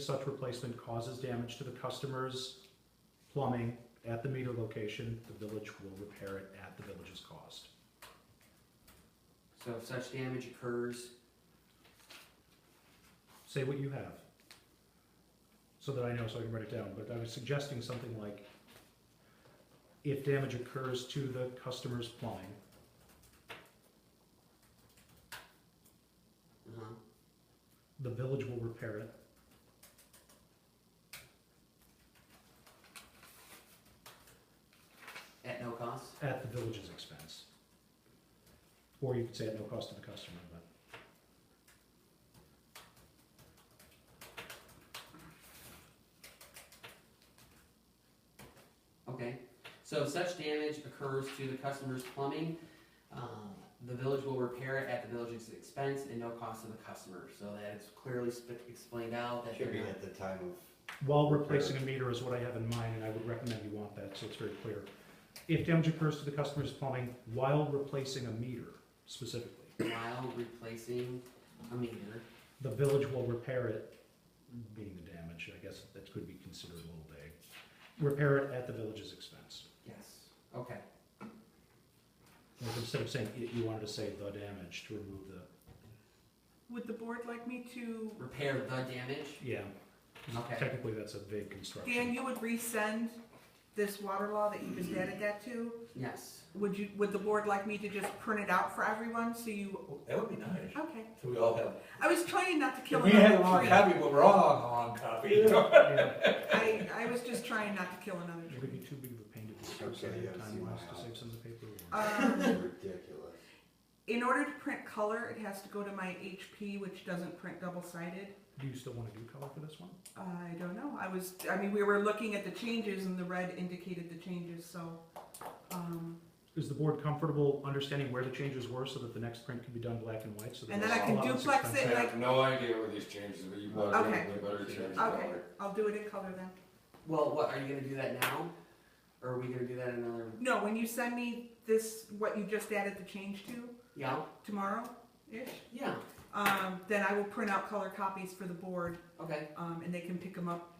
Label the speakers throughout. Speaker 1: such replacement causes damage to the customer's plumbing at the meter location, the village will repair it at the village's cost.
Speaker 2: So if such damage occurs,
Speaker 1: Say what you have. So that I know, so I can write it down, but I was suggesting something like, if damage occurs to the customer's plumbing,
Speaker 2: uh-huh,
Speaker 1: the village will repair it.
Speaker 2: at no cost?
Speaker 1: at the village's expense. Or you could say at no cost to the customer, but.
Speaker 2: Okay, so if such damage occurs to the customer's plumbing, um, the village will repair it at the village's expense and no cost to the customer. So that it's clearly sp- explained out that
Speaker 3: Should
Speaker 2: they're
Speaker 3: be
Speaker 2: not.
Speaker 3: at the time of,
Speaker 1: While replacing a meter is what I have in mind, and I would recommend you want that, so it's very clear. If damage occurs to the customer's plumbing while replacing a meter specifically,
Speaker 2: While replacing a meter,
Speaker 1: the village will repair it, being the damage, I guess that could be considered a little vague. Repair it at the village's expense.
Speaker 2: yes, okay,
Speaker 1: Like, Instead of saying it, you wanted to say the damage to remove the,
Speaker 4: Would the board like me to,
Speaker 2: repair the damage,
Speaker 1: yeah.
Speaker 2: Okay.
Speaker 1: Technically, that's a vague construction.
Speaker 4: Dan, you would resend this water law that you just added that to?
Speaker 2: yes.
Speaker 4: Would you, would the board like me to just print it out for everyone so you,
Speaker 5: Oh, That would be nice.
Speaker 4: okay.
Speaker 5: So we all have.
Speaker 4: I was trying not to kill
Speaker 5: we had a
Speaker 4: another
Speaker 5: long
Speaker 4: tree.
Speaker 5: copy, but we're all on a long copy.
Speaker 1: Yeah.
Speaker 4: I, I was just trying not to kill another
Speaker 1: Would it be too big of a pain to discuss
Speaker 3: Okay,
Speaker 1: ahead
Speaker 3: yeah,
Speaker 1: of
Speaker 3: see
Speaker 1: time wise
Speaker 3: my
Speaker 1: to save some of the paper? or-
Speaker 4: tree. Um,
Speaker 3: ridiculous.
Speaker 4: in order to print color, it has to go to my HP, which doesn't print double sided.
Speaker 1: Do you still want to do color for this one?
Speaker 4: I don't know, I was, I mean, we were looking at the changes and the red indicated the changes, so, um,
Speaker 1: Is the board comfortable understanding where the changes were so that the next print can be done black and white? So that
Speaker 4: And then
Speaker 1: it's
Speaker 4: I can
Speaker 1: a lot less
Speaker 4: duplex
Speaker 6: I
Speaker 4: it.
Speaker 1: expensive?
Speaker 6: have no idea where these changes, but you better,
Speaker 4: Okay.
Speaker 6: you better change that
Speaker 4: okay,
Speaker 6: one.
Speaker 4: I'll do it in color then.
Speaker 2: Well, what, are you gonna do that now? Or are we gonna do that another,
Speaker 4: No, when you send me this, what you just added the change to
Speaker 2: yeah,
Speaker 4: tomorrow-ish,
Speaker 2: yeah,
Speaker 4: um, then I will print out color copies for the board,
Speaker 2: okay,
Speaker 4: um, and they can pick them up,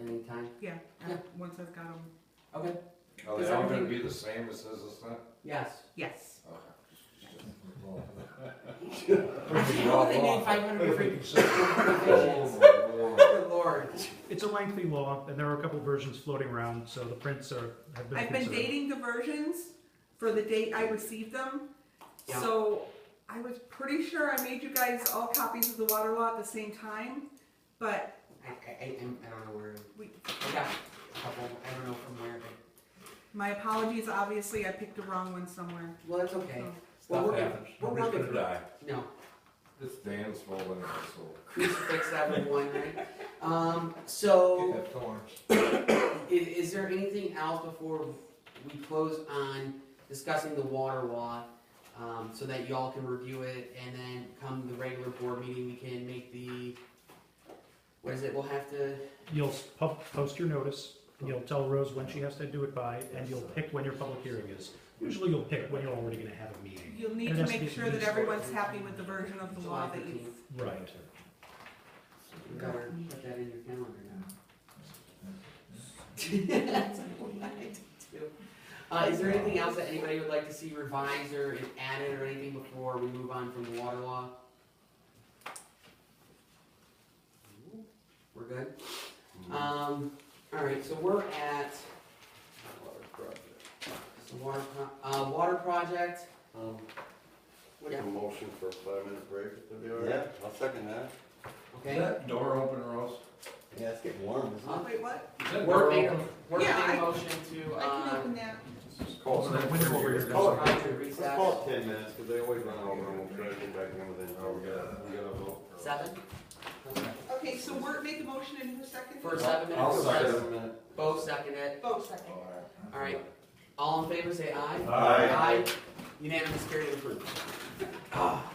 Speaker 2: anytime,
Speaker 4: yeah, uh,
Speaker 2: Yeah.
Speaker 4: once I've got them.
Speaker 2: okay,
Speaker 6: Are they all gonna be the same as this, this, that?
Speaker 2: yes.
Speaker 4: Yes.
Speaker 6: Okay.
Speaker 2: I know they made five hundred different
Speaker 6: Oh,
Speaker 2: provisions. Good lord.
Speaker 1: It's a lengthy law, and there are a couple versions floating around, so the prints are, have been
Speaker 4: I've been
Speaker 1: considered.
Speaker 4: dating the versions for the date I received them,
Speaker 2: Yeah.
Speaker 4: so I was pretty sure I made you guys all copies of the water law at the same time, but
Speaker 2: I, I, I, I'm- I don't know where.
Speaker 4: We-
Speaker 2: I got a couple. I don't know from where. But,
Speaker 4: my apologies, obviously I picked the wrong one somewhere.
Speaker 2: well, that's okay.
Speaker 4: Oh.
Speaker 2: Well,
Speaker 5: Stuff
Speaker 2: we're gonna,
Speaker 5: happens.
Speaker 2: we're
Speaker 5: Nobody's
Speaker 2: working
Speaker 5: gonna die.
Speaker 2: no
Speaker 6: This Dan's fault and my soul.
Speaker 2: crucifix everyone, right? Um. So,
Speaker 5: Get that thorns.
Speaker 2: i- is there anything else before we close on discussing the water law? Um, so that y'all can review it, and then come the regular board meeting, we can make the. What is it? We'll have to.
Speaker 1: You'll s- pub- post your notice, and you'll tell Rose when she has to do it by, and you'll pick when your public hearing is. Usually you'll pick when you're already gonna have a meeting.
Speaker 4: You'll need
Speaker 1: And
Speaker 4: to
Speaker 1: that's
Speaker 4: make
Speaker 1: the-
Speaker 4: sure that everyone's happy with the version of the law
Speaker 2: July
Speaker 4: that you've
Speaker 2: 15th.
Speaker 1: Right.
Speaker 2: You better put that in your calendar now. That's what I do. Uh, is there anything else that anybody would like to see revised or added or anything before we move on from the water law? We're good? Um, alright, so we're at. So water pro- uh, water project,
Speaker 3: Um,
Speaker 2: what do you-
Speaker 6: motion for a five-minute break, if they
Speaker 3: Yeah, I'll second that.
Speaker 5: Is
Speaker 2: okay?
Speaker 5: that door open, Ross?
Speaker 3: Yeah, it's getting warm, isn't
Speaker 2: Uh,
Speaker 4: Wait, what?
Speaker 5: Is that
Speaker 2: Work
Speaker 5: door
Speaker 2: made,
Speaker 5: open?
Speaker 2: work made
Speaker 4: Yeah, I-
Speaker 2: a motion to,
Speaker 4: I can
Speaker 2: uh,
Speaker 4: open that.
Speaker 1: So that window over here-
Speaker 5: Call it.
Speaker 2: Roger,
Speaker 3: it?
Speaker 2: recess.
Speaker 3: Let's call it ten minutes, because they always run over, and we'll try to get back in within an
Speaker 6: Oh, we
Speaker 3: hour.
Speaker 6: gotta, we gotta vote.
Speaker 2: Seven?
Speaker 4: Okay, so Wirt made the motion in who's second?
Speaker 2: For seven
Speaker 5: I'll
Speaker 2: minutes,
Speaker 5: second.
Speaker 2: yes. both second it.
Speaker 4: Both Oh, second.
Speaker 2: Alright, all in favor, say aye.
Speaker 5: Aye.
Speaker 2: Unanimous, carried, and approved. Ah,